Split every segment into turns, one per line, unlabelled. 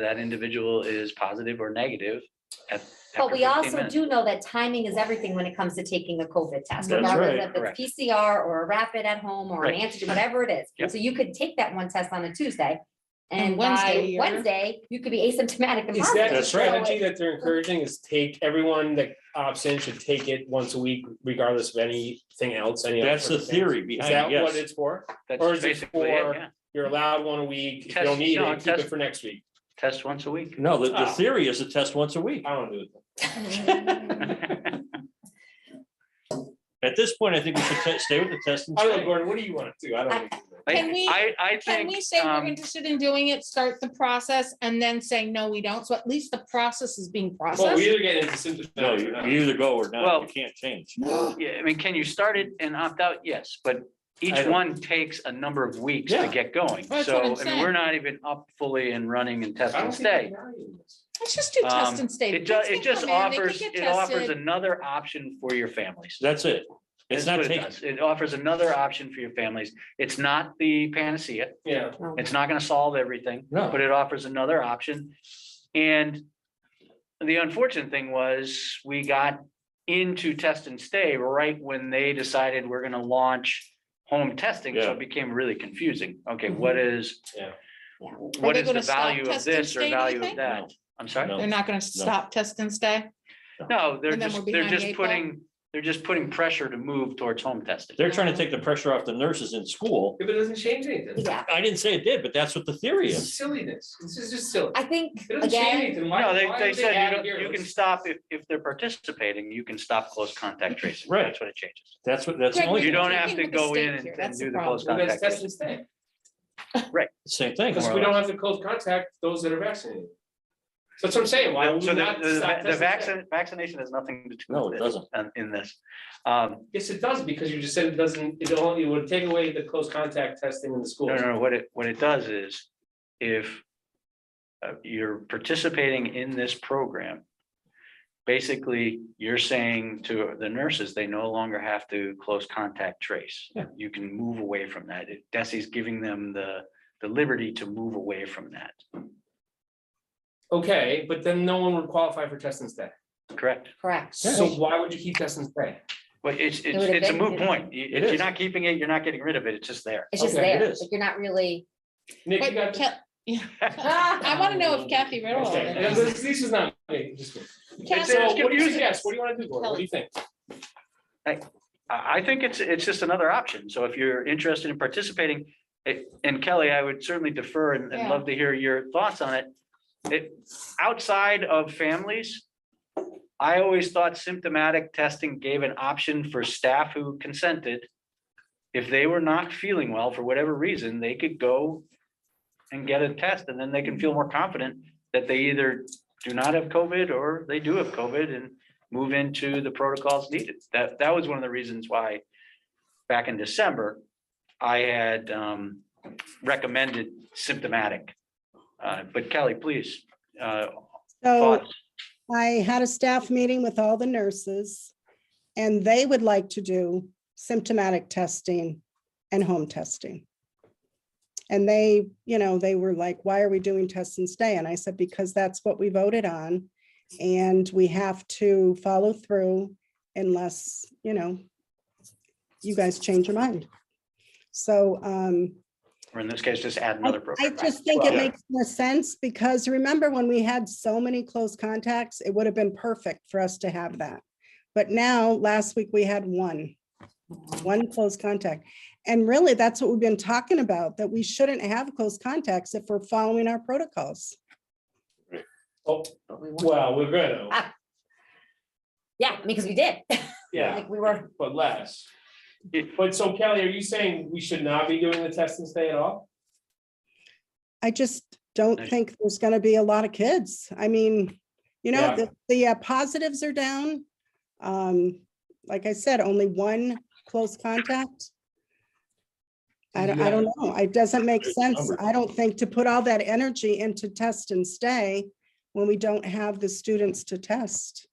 that individual is positive or negative. at-
But
after
we
15
also
minutes.
do know that timing is everything when it comes to taking a COVID test,
That's
regardless
right.
if it's PCR or a rapid at home or an
Right.
antigen, whatever it
Yep.
is. So you could take that one test on a Tuesday. And
And Wednesday
by
you're-
Wednesday, you could be asymptomatic and
Exactly,
positive. So
the strategy
it-
that they're encouraging is take, everyone that opts in should take it once a week regardless of anything else, any. other
That's the
circumstance.
theory
Is
behind,
that
it,
what
yes.
it's for? Or
That's
is it
basically it,
for-
yeah.
You're allowed one a week, if you
Test-
don't need
no,
it, keep
test-
it for next week.
Test once a week.
No, the, the
Ah.
theory is to test once a week.
I don't do it.
Mm-hmm.
At this point, I think we should te- stay with the test and
I don't know,
stay.
Gordon, what do you want to do? I don't. wanna do that.
I-
Can we-
I, I
Can
think,
we say we're
um,
interested in doing it, start the process, and then say, no, we don't? So at least the process is being
Well, we
processed.
either get into
No,
symptomatic
you
or not.
you either go or not,
Well-
you can't change.
yeah, I mean, can you start it and opt out? Yes, but
I
each
don't-
one takes a number of weeks to
Yeah.
get going.
That's what I'm
So, I mean, we're
saying.
not even up fully and running and
I
testing
don't think there's
stay.
value in this.
Let's just do
Um,
test and stay.
It does,
Kids
it
can
just
come in, they can
offers,
get
it offers
tested.
another option for your families.
That's it. It's
That's
not
what it
taking,
does. It offers another option for your families. It's not the panacea.
Yeah,
No.
It's not gonna solve everything,
No.
but it offers another option. And the unfortunate thing was, we got into test and stay right when they decided we're gonna launch home testing, so
Yeah.
it became really confusing. Okay, what is?
Yeah.
Yeah.
What
they
is the
gonna stop
value of
test and
this or
stay, do you
value of
think?
that? I'm sorry?
No.
They're not gonna stop test and stay?
No, they're
And then
just,
we're
they're
behind the
just
eight ball?
putting, they're just putting pressure to move towards home testing.
they're trying to take the pressure off the nurses in school.
if it doesn't change anything,
Yeah,
I didn't say it did, but that's what the theory
it's
is.
silliness. This is just silly.
I think,
It doesn't change
again,
anything. Why-
No, they,
why
they
would
said
add
you
it
don't,
here?
you can
Let's-
stop, if, if they're participating, you can stop close contact tracing.
Right.
That's what it changes.
That's what, that's the
Greg,
only,
You
We're
don't
thing.
have to
drinking with the
go
state
in and
here.
and
That's the
do the close
Well,
contact.
That's test
tracing.
and stay.
same thing.
Because
More or
we don't
less.
have to close contact those that are vaccinated. So That's what I'm saying, why would
So
we
the,
not stop
the- the
testing today?
vaccine, vaccination has nothing to do.
No,
with
it doesn't.
um, In this, um,
Yes, it does, because you just said it doesn't, it only, it would take away the close contact testing in
no,
the schools.
no, no, what it, what it does is if uh, you're participating in this program, basically you're saying to the nurses, they no longer have to close contact trace.
Yeah.
You can move away from that. It- Desi's giving them the, the liberty to move away from that,
Okay, but then no one would qualify for test and stay.
correct?
correct.
So why would you keep test and stay?
But it's, it's,
would've
it's a
been-
moot point. You- If you're
is.
not keeping it, you're not getting rid of it. It's just there.
It's just
Okay,
it
there,
is.
like you're not really,
Nick, you
But
got.
Ca- I wanna know if Kathy read all of
Okay, and
it.
this- This is not. me, just me.
Kathy,
So
it's
what do you
confusing.
suggest? What do you want to do, Gordon? What do you think?
I, I think it's, it's just another option. So if you're interested in participating, it- and Kelly, I would certainly defer and, and
Yeah.
love to hear your thoughts on it. It, outside of families, I always thought symptomatic testing gave an option for staff who consented. If they were not feeling well for whatever reason, they could go and get a test and then they can feel more confident that they either do not have COVID or they do have COVID and move into the protocols needed. That, that was one of the reasons why back in December, I had um, recommended symptomatic. Uh, But Kelly, please, uh,
So
thoughts?
I had a staff meeting with all the nurses and they would like to do symptomatic testing and home testing. And they, you know, they were like, why are we doing test and stay? And I said, because that's what we voted on. And we have to follow through unless, you know, you guys change your mind. So um,
or in this case, just add
I-
another
I
program.
just think it
Well-
makes more sense because remember when we had so many close contacts, it would have been perfect for us to have that. But now, last week, we had one, one close contact. And really, that's what we've been talking about, that we shouldn't have close contacts if we're following our protocols.
Oh, well, we're gonna,
yeah, because we did,
yeah,
like we were.
but less.
It-
But so Kelly, are you saying we should not be doing the test and stay at all?
I just don't
Nice.
think there's gonna be a lot of kids. I mean, you know,
Yeah.
the, the uh, positives are down. Um, like I said, only one close contact. I don't, I don't know. It doesn't make
Big
sense,
number.
I don't think, to put all that energy into test and stay when we don't have the students to test.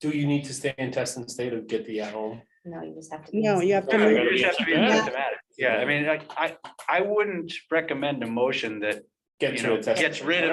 Do you need to stay in test and stay to get the at home?
No, you just have to. be
No, you have to.
Yeah,
move-
You just have to be
Yeah.
symptomatic. Yeah, I mean, I, I, I wouldn't recommend a motion that,
Get
You
to
know,
a test.
gets rid of